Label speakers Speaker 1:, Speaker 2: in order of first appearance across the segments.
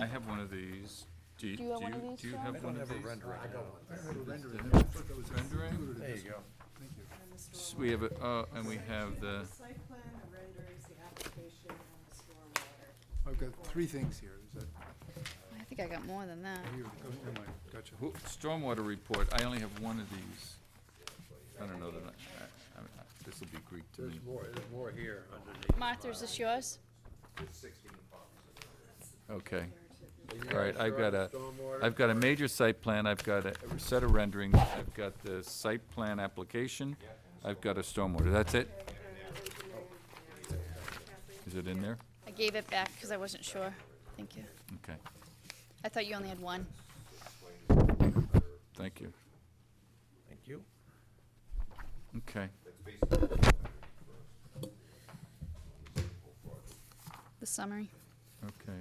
Speaker 1: I have one of these. Do you, do
Speaker 2: Do you have one of
Speaker 1: you,
Speaker 2: these,
Speaker 1: do you
Speaker 2: John?
Speaker 1: have
Speaker 3: I
Speaker 1: one
Speaker 3: don't
Speaker 1: of
Speaker 3: have a
Speaker 1: these?
Speaker 3: rendering. I got one.
Speaker 1: Rendering?
Speaker 3: There you go.
Speaker 1: S- We have, a- uh, and we have the,
Speaker 4: The site plan, the renderings, the application, and the stormwater.
Speaker 5: I've got three things here, is that,
Speaker 2: I think I got more than that.
Speaker 5: here, oh, never mind, gotcha.
Speaker 1: who- stormwater report. I only have one of these. I don't know that, I- I, I, this will be Greek to me.
Speaker 3: There's more, there's more here underneath.
Speaker 2: Martha, is this yours?
Speaker 1: Okay.
Speaker 3: So you
Speaker 1: All right, I've got a,
Speaker 3: stormwater,
Speaker 1: I've got a major site plan, I've got a set of renderings, I've got the site plan application, I've got a stormwater, that's it? Is it in there?
Speaker 2: I gave it back because I wasn't sure. Thank you.
Speaker 1: Okay,
Speaker 2: I thought you only had one.
Speaker 1: thank you.
Speaker 3: Thank you.
Speaker 1: Okay,
Speaker 2: The summary.
Speaker 1: okay.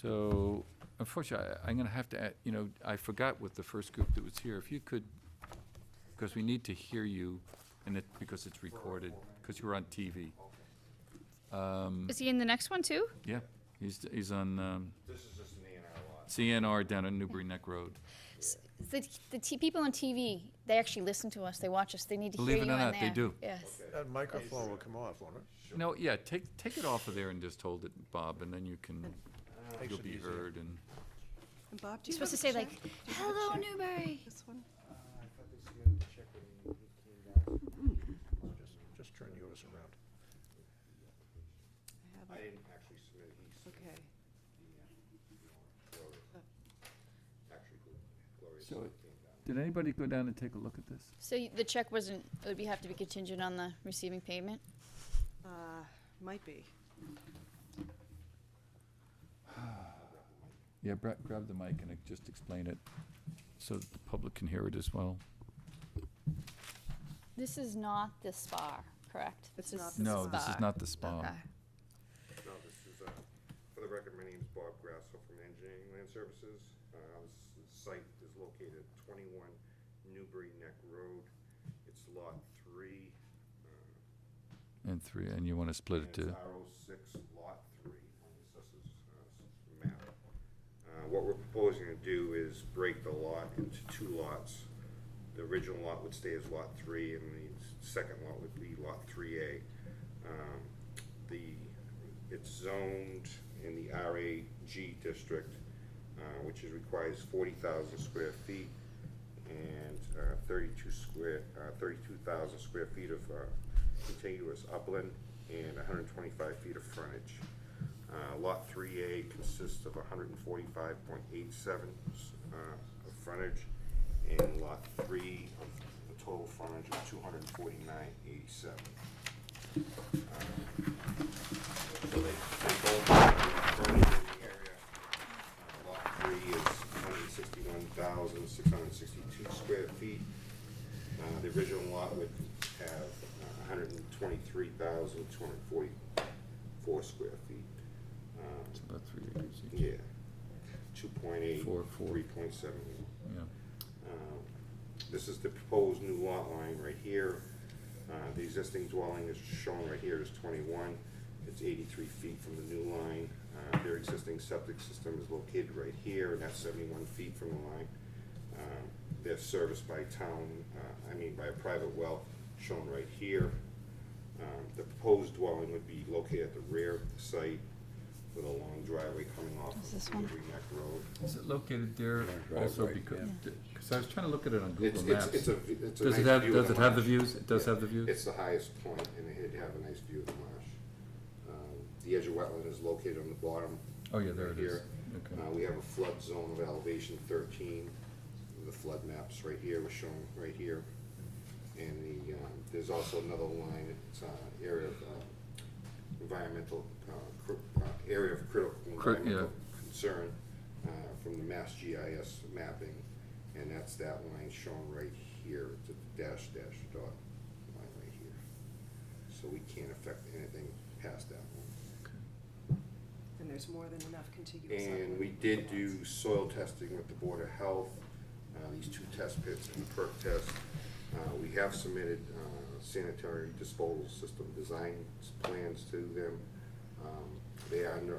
Speaker 1: So, unfortunately, I- I'm gonna have to, add- you know, I forgot with the first group that was here, if you could, because we need to hear you, and it, because it's recorded, because you were on TV. Um,
Speaker 2: Is he in the next one too?
Speaker 1: Yeah, he's, he's on, um. This is just an A down on Newbury Neck Road.
Speaker 2: S- The, the t- people on TV, they actually listen to us. They watch us. They need to
Speaker 1: Believe
Speaker 2: hear
Speaker 1: it
Speaker 2: you
Speaker 1: or
Speaker 2: in
Speaker 1: not, they
Speaker 2: there.
Speaker 1: do.
Speaker 2: Yes.
Speaker 3: That microphone will come off, won't it?
Speaker 1: No, yeah, take, take it off of there and just hold it, Bob, and then you can,
Speaker 3: Makes
Speaker 1: you'll
Speaker 3: it
Speaker 1: be
Speaker 3: easier.
Speaker 1: heard and,
Speaker 4: And Bob, do
Speaker 2: You're
Speaker 4: you have
Speaker 2: supposed
Speaker 4: a
Speaker 2: to say
Speaker 4: check?
Speaker 2: like, "Hello, Newbury."
Speaker 4: This one?
Speaker 3: Just, just turn yours around.
Speaker 4: I have it.
Speaker 6: didn't actually submit, he
Speaker 4: Okay.
Speaker 6: actually, Gloria
Speaker 1: So-
Speaker 6: came down.
Speaker 1: did anybody go down and take a look at this?
Speaker 2: So y- the check wasn't. It would be, have to be contingent on the receiving payment.
Speaker 4: Uh, might be.
Speaker 1: Yeah, grab, grab the mic and uh, just explain it, so that the public can hear it as well.
Speaker 2: This is not the spa, correct?
Speaker 4: It's
Speaker 2: This
Speaker 4: not
Speaker 2: is-
Speaker 4: the
Speaker 1: No, this is
Speaker 2: spa.
Speaker 1: not the spa.
Speaker 2: Okay.
Speaker 6: No, this is, uh, for the record, my name is Bob Grasso from Engineering Land Services. Uh, This site is located at 21 Newbury Neck Road. It's Lot 3. uh,
Speaker 1: And three, and you wanna split it
Speaker 6: And
Speaker 1: to,
Speaker 6: it's R06, Lot 3 on the assessor's uh, map. Uh, What we're proposing to do is break the lot into two lots. The original lot would stay as Lot 3, and the s- second lot would be Lot 3A. Um, The, it's zoned in the RAG district, uh, which is, requires 40,000 square feet and uh, 32 square, uh, 32,000 square feet of uh, contiguous upland and 125 feet of frontage. Uh, Lot 3A consists of 145.87 uh, of frontage, and Lot 3 of the total frontage of 249.87. So they, they both frontage in the area. Uh, Lot three is hundred sixty-one thousand, six hundred sixty-two square feet. Uh, the original lot would have uh, hundred and twenty-three thousand, two hundred forty-four square feet.
Speaker 1: it's
Speaker 6: Um,
Speaker 1: about three acres each,
Speaker 6: yeah, two point eight,
Speaker 1: Four, four.
Speaker 6: three point seven.
Speaker 1: yeah.
Speaker 6: Um, This is the proposed new lot line right here. Uh, The existing dwelling is shown right here is 21. It's 83 feet from the new line. Uh, Their existing septic system is located right here, and that's 71 feet from the line. Um, They're serviced by town, uh, I mean by a private well, shown right here. Um, The proposed dwelling would be located at the rear of the site with a long driveway coming off
Speaker 2: Is this
Speaker 6: of
Speaker 2: one?
Speaker 6: Newbury Neck Road.
Speaker 1: Is it located there also because, cause I was trying to look at it on
Speaker 6: It's,
Speaker 1: Google
Speaker 6: it's,
Speaker 1: Maps.
Speaker 6: it's a, v- it's a
Speaker 1: Does it
Speaker 6: nice
Speaker 1: have,
Speaker 6: view of
Speaker 1: does it have the
Speaker 6: marsh.
Speaker 1: views? It does
Speaker 6: Yeah.
Speaker 1: have the views?
Speaker 6: It's the highest point, and it'd have a nice view of the marsh. Um, The edge of wetland is located on the bottom.
Speaker 1: Oh, yeah, there
Speaker 6: right
Speaker 1: it is.
Speaker 6: here.
Speaker 1: Okay.
Speaker 6: Uh, we have a flood zone of elevation thirteen, the flood maps right here, was shown right here. And the, um, there's also another line, it's, uh, area of, uh, environmental, uh, cr- uh, area of critical
Speaker 1: Cri- yeah.
Speaker 6: environmental concern, uh, from the Mass GIS mapping, and that's that line shown right here, it's a dash dash dot line right here. So we can't affect anything past that one.
Speaker 4: And there's more than enough contiguous.
Speaker 6: And
Speaker 4: upland
Speaker 6: we did
Speaker 4: lots.
Speaker 6: do soil testing with the Board of Health, uh, these two test pits and the perk test. Uh, we have submitted, uh, sanitary disposal system design plans to them. Um, they are under,